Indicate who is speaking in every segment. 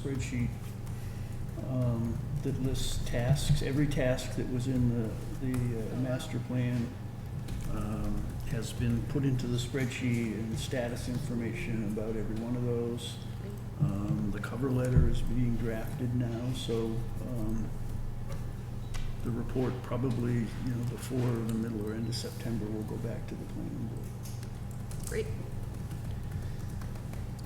Speaker 1: spreadsheet um, that lists tasks, every task that was in the, the uh, master plan um, has been put into the spreadsheet and status information about every one of those. Um, The cover letter is being drafted now, so um, the report probably, you know, before the middle or end of September, will go back to the planning board.
Speaker 2: Great.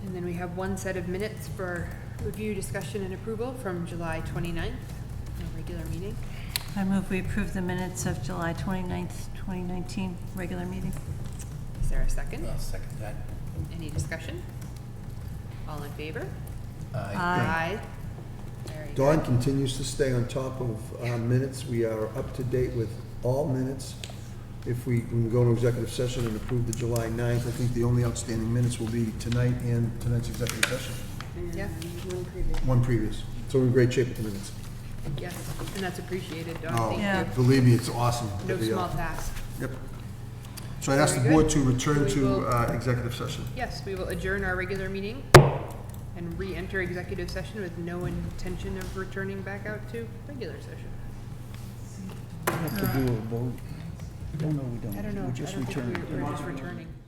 Speaker 2: And then we have one set of minutes for review, discussion, and approval from July 29th, our regular meeting.
Speaker 3: I move we approve the minutes of July 29th, 2019, regular meeting.
Speaker 2: Is there a second?
Speaker 4: I'll second that.
Speaker 2: Any discussion? All in favor?
Speaker 4: Aye.
Speaker 3: Aye.
Speaker 2: Very good.
Speaker 5: Dawn continues to stay on top of our minutes. We are up to date with all minutes. If we when we go to executive session and approve the July 9th, I think the only outstanding minutes will be tonight and tonight's executive session,
Speaker 2: Yeah,
Speaker 5: one previous. So we're in great shape with the minutes.
Speaker 2: yes, and that's appreciated, Dawn,
Speaker 5: Oh,
Speaker 2: thank you.
Speaker 5: Believe me, it's awesome.
Speaker 2: No
Speaker 5: that we are-
Speaker 2: small task.
Speaker 5: Yep. So I'd ask the
Speaker 2: Very
Speaker 5: board
Speaker 2: good.
Speaker 5: to return
Speaker 2: We
Speaker 5: to
Speaker 2: will-
Speaker 5: uh, executive session.
Speaker 2: Yes, we will adjourn our regular meeting and re-enter executive session with no intention of returning back out to regular session.
Speaker 1: We have to do a vote. Oh, no, we don't.
Speaker 2: I don't know, I
Speaker 1: We
Speaker 2: don't
Speaker 1: just
Speaker 2: think
Speaker 1: return.
Speaker 2: we're we're just returning.